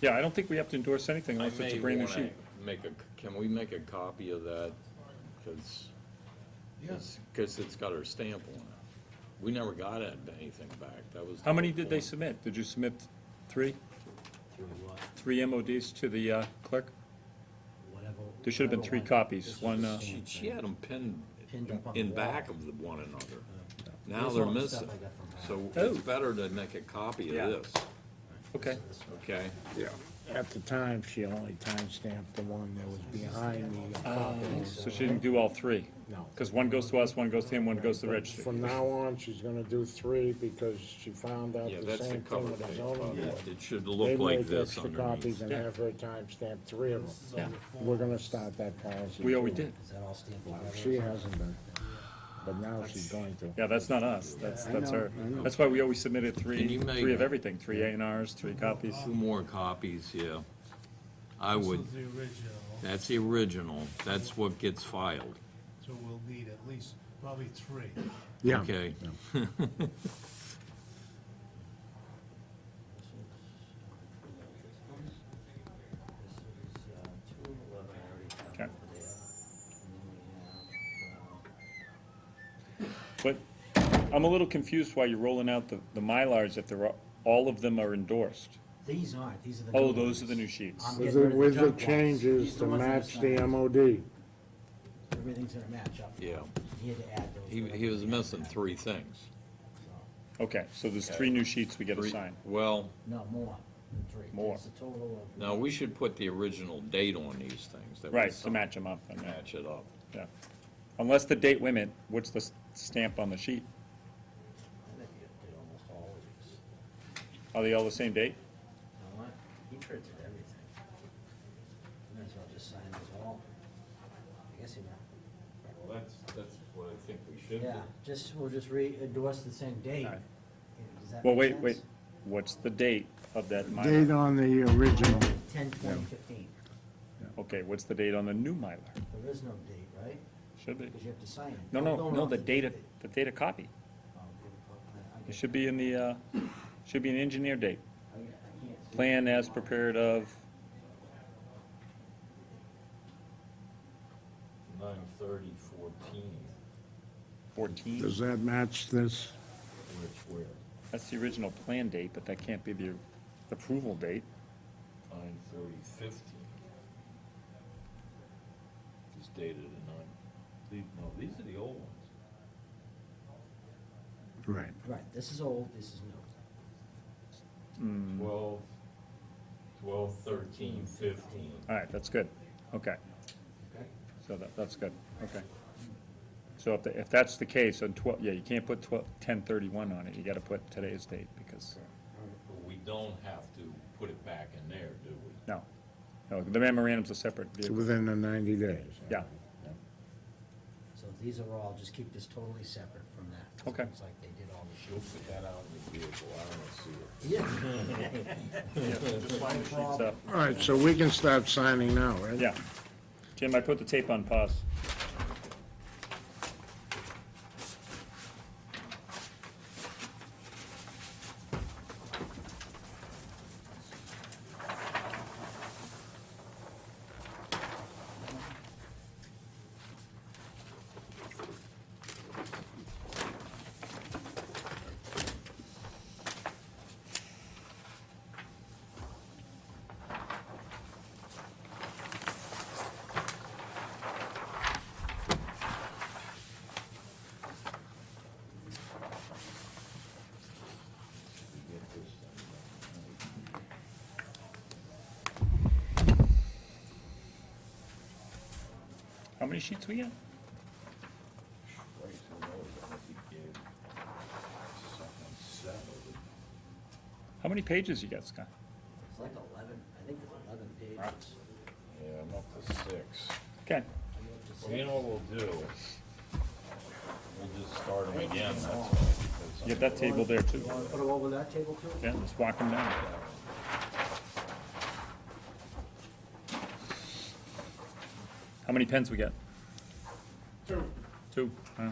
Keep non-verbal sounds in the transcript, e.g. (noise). Yeah, I don't think we have to endorse anything I unless it's a may brand new want sheet. to make a, can we make a copy of that? Because, because it's got her stamp on it. We never got it- anything back, that was. the How many whole did they point. submit? Did you submit three, Through what, three MODs to the uh, clerk? whatever. There should have been whatever three one. copies, This is one, the uh, same She, she thing. had them pinned Pinned up on the in wall. back of the one another. Now Here's they're all the stuff missing, I got from her. so Oh. it's better to make a copy Yeah. of this, Okay. okay? Yeah. At the time, she only timestamped the one that was behind the apartment. So she didn't do all three? No. Because one goes to us, one goes to him, one goes to the registry. From now on, she's gonna do three because she found out Yeah, the that's the same thing cover with the page. zoning probably. board. It should They look like make this extra underneath. copies and Yeah. have her timestamp three of This them. is all Yeah. your form. We're gonna start that policy. We already too. did. Is that all stamped together? She hasn't been, but now she's going to. Yeah, that's not us, that's, I that's know, her. I know. That's why we always submitted Can three, you make- three of everything, three A and Rs, three copies. Two more copies, yeah. I This would, is the original, that's the original, that's what gets filed, so we'll need at least probably three. Yeah. okay? This is, uh, two of eleven, I already found Okay. over there. And then we have, uh, But I'm a little confused why you're rolling out the, the Mylars if they're, all- all of them are endorsed. These aren't, these are the new Oh, ones. those are the new sheets. I'm With getting rid the, of with the junk ones. These changes are to ones that are match the signed. MOD. Everything's gonna match up. Yeah. He had to add those. He, whatever he was had to missing add. three things. Okay, so there's three new sheets we get Three- assigned. Well, No, more than three. More. It's a total of. no, we should put the original date on these things. that we Right, to signed. match them up, I mean, Match it up. yeah. Unless the date women, what's the s- stamp on the sheet? I think he did almost all of these. Are they all the same date? You know what? He printed everything. Might as well just sign this all. I guess he will. Well, that's, that's what I think we should Yeah, just, we'll just re-endorse the same date. Alright. Yeah, Does that Well, make wait, sense? wait, what's the date of that Date Mylar? on the original. Ten, twenty, fifteen. Okay, what's the date on the new Mylar? There is no date, right? Should be. Because you have to sign it. No, We're no, going no, off the data, date. the data copy. Oh, okay, well, I- I It get- should be in the, uh, should be an engineer date. I get- I can't see. Plan as prepared of, Nine thirty fourteen, 14. Does that match this? which where? That's the original plan date, but that can't be the approval date. Nine thirty fifteen. It's dated at nine. These, no, these are the old ones. Right. Right, this is old, this is new. Twelve, twelve, thirteen, fifteen. All right, that's good. Okay, Okay. so that, that's good, okay. So if, the- if that's the case, on 12, yeah, you can't put 12, 1031 on it. You gotta put today's date because, But we don't have to put it back in there, do we? no. No, the memorandum's a separate vehicle. Within the ninety days. Yeah. So these are all, just keep this totally separate from that. 'cause it Okay. Looks like they did all the (laughs) She'll put that out in the vehicle, I don't see it. Yeah. Just line the sheets up. All right, so we can start signing now, right? Yeah. Jim, I put the tape on pause. How many sheets we got? How many pages you got, Scott? It's like eleven, I think it's eleven pages. Are Yeah, I'm up to six. Okay, you up to six? Well, you know what we'll do? We'll just start them again, that's all. because get that table there too. You wanna put them over that table too? Yeah, let's walk them down. How many pens we got? Two. Two, huh?